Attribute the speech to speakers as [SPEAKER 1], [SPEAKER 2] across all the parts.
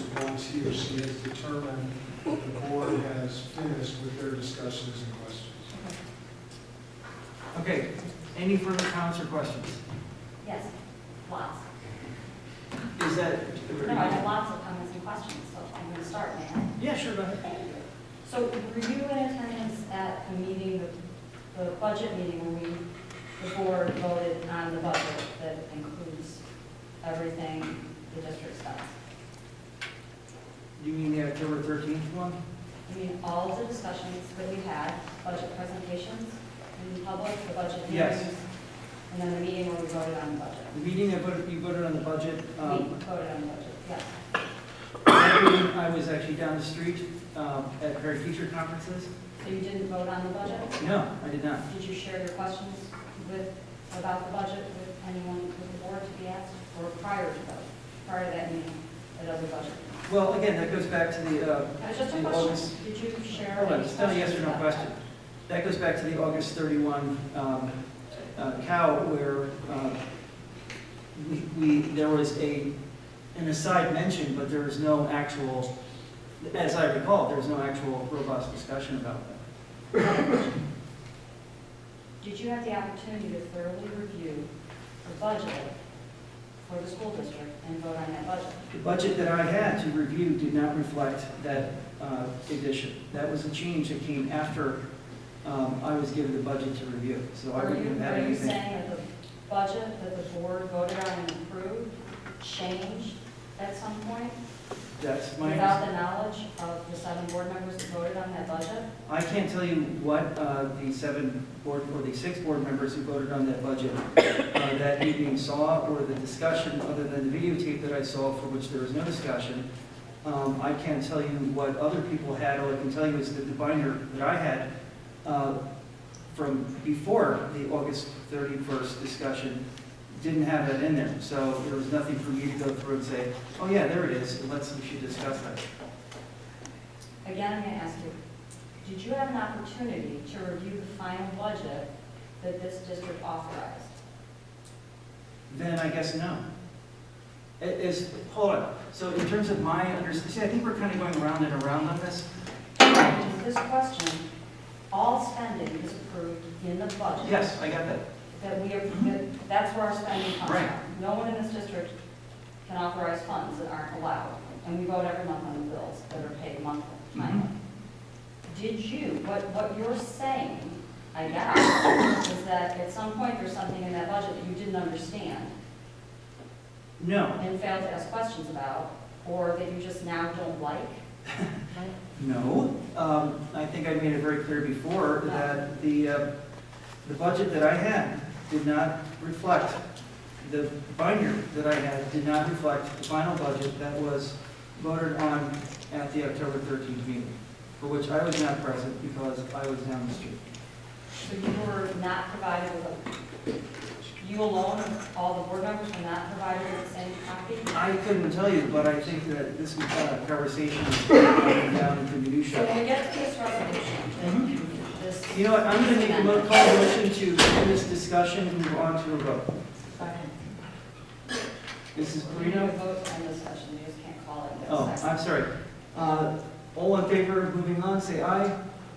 [SPEAKER 1] if she has determined that the board has finished with their discussions and questions.
[SPEAKER 2] Okay, any further comments or questions?
[SPEAKER 3] Yes, lots.
[SPEAKER 2] Is that?
[SPEAKER 3] No, I have lots of comments and questions, so I'm going to start now.
[SPEAKER 2] Yeah, sure, go ahead.
[SPEAKER 3] So were you in attendance at the meeting, the- the budget meeting, when we, the board voted on the budget that includes everything the district does?
[SPEAKER 2] You mean the October thirteenth one?
[SPEAKER 3] I mean, all of the discussions that we had, budget presentations in public, the budget
[SPEAKER 2] Yes.
[SPEAKER 3] hearings, and then the meeting where we voted on the budget.
[SPEAKER 2] The meeting that voted- you voted on the budget,
[SPEAKER 3] We
[SPEAKER 2] um,
[SPEAKER 3] voted on the budget, yes.
[SPEAKER 2] that meeting, I was actually down the street um, at her teacher conferences.
[SPEAKER 3] So you didn't vote on the budget?
[SPEAKER 2] No, I did not.
[SPEAKER 3] Did you share your questions with, about the budget with anyone with the board to be asked, or prior to that, prior to that meeting, that other budget?
[SPEAKER 2] Well, again, that goes back to the, uh,
[SPEAKER 3] That was just a
[SPEAKER 2] The
[SPEAKER 3] question.
[SPEAKER 2] August-
[SPEAKER 3] Did you share?
[SPEAKER 2] hold on,
[SPEAKER 3] any
[SPEAKER 2] it's still a yes or no
[SPEAKER 3] questions about
[SPEAKER 2] question. That goes back to the August thirty-one um, uh, cow where um, we- we, there was a, an aside mention, but there was no actual, as I recall, there was no actual robust discussion about that.
[SPEAKER 3] that? Did you have the opportunity to thoroughly review the budget for the school district and vote on that budget?
[SPEAKER 2] The budget that I had to review did not reflect that uh, addition. That was a change that came after um, I was given the budget to review, so I
[SPEAKER 3] Are you,
[SPEAKER 2] wouldn't have
[SPEAKER 3] are
[SPEAKER 2] had
[SPEAKER 3] you
[SPEAKER 2] anything.
[SPEAKER 3] saying that the budget that the board voted on and approved changed at some point
[SPEAKER 2] That's my,
[SPEAKER 3] without the knowledge of the seven board members that voted on that budget?
[SPEAKER 2] I can't tell you what uh, the seven board, or the six board members who voted on that budget uh, that evening saw, or the discussion, other than the videotape that I saw, for which there was no discussion. Um, I can't tell you what other people had, all I can tell you is that the binder that I had uh, from before the August 31st discussion didn't have that in there. So there was nothing for me to go through and say, oh yeah, there it is, let's, we should discuss that.
[SPEAKER 3] Again, I'm going to ask you, did you have an opportunity to review the final budget that this district authorized?
[SPEAKER 2] Then I guess no. It is, hold on, so in terms of my understanding, see, I think we're kind of going around and around on this.
[SPEAKER 3] Is this question, all spending is approved in the budget?
[SPEAKER 2] Yes, I got that.
[SPEAKER 3] That we, are- that- that's where our spending comes from.
[SPEAKER 2] Right.
[SPEAKER 3] No one in this district can authorize funds that aren't allowed, and we vote every month on the bills that are paid monthly, monthly.
[SPEAKER 2] Mm-hmm.
[SPEAKER 3] Did you, what, what you're saying, I guess, is that at some point there's something in that budget that you didn't understand,
[SPEAKER 2] No,
[SPEAKER 3] and failed to ask questions about, or that you just now don't like?
[SPEAKER 2] no. Um, I think I made it very clear before that the, uh, the budget that I had did not reflect, the binder that I had did not reflect the final budget that was voted on at the October 13th meeting, for which I was not present because I was down the street.
[SPEAKER 3] So you were not provided with, a- you alone, all the board members were not provided with the same copy?
[SPEAKER 2] I couldn't tell you, but I think that this uh, conversation is going down into
[SPEAKER 3] So when
[SPEAKER 2] minutia.
[SPEAKER 3] we get to this resolution, this,
[SPEAKER 2] You know what, I'm gonna make a mo- call a motion to end this discussion and move on to a vote. Mrs.
[SPEAKER 3] you know,
[SPEAKER 2] Perino?
[SPEAKER 3] vote on this session, you just can't call it.
[SPEAKER 2] Oh, I'm sorry. Uh, All in favor of moving on, say aye.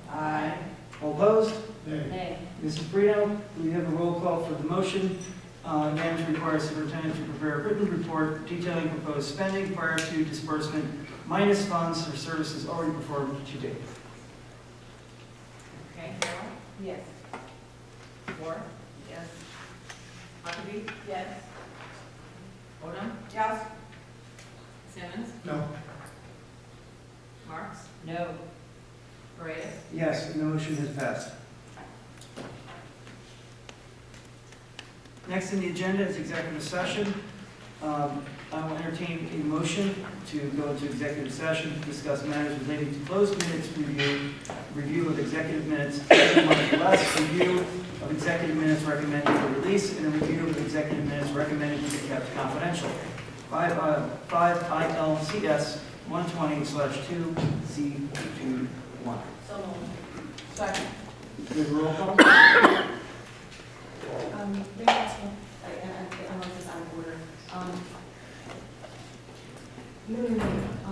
[SPEAKER 3] Aye.
[SPEAKER 2] All opposed?
[SPEAKER 1] Nay,
[SPEAKER 3] Nay.
[SPEAKER 2] Mrs. Perino, we have a roll call for the motion. Uh, Manager requires superintendent to prepare a written report detailing proposed spending prior to disbursement minus funds for services already performed to date.
[SPEAKER 4] Okay, Carol?
[SPEAKER 3] Yes.
[SPEAKER 4] Moore? Yes. Huckabee? Yes. Odom?
[SPEAKER 3] Yes.
[SPEAKER 4] Simmons?
[SPEAKER 1] no,
[SPEAKER 4] Marks?
[SPEAKER 3] No.
[SPEAKER 4] Paredes?
[SPEAKER 2] Yes, the motion has passed. Next on the agenda is executive session. Um, I will entertain a motion to go into executive session to discuss matters relating to closed minutes review, review of executive minutes, less review of executive minutes recommended for release, and a review of executive minutes recommended to be kept confidential. Five, uh, five ILCS one twenty slash two C two one.
[SPEAKER 4] So moved. Second.
[SPEAKER 2] Good roll call?
[SPEAKER 5] Um, may I ask one, I, I, I don't know if it's out of order. Um, No, no, no,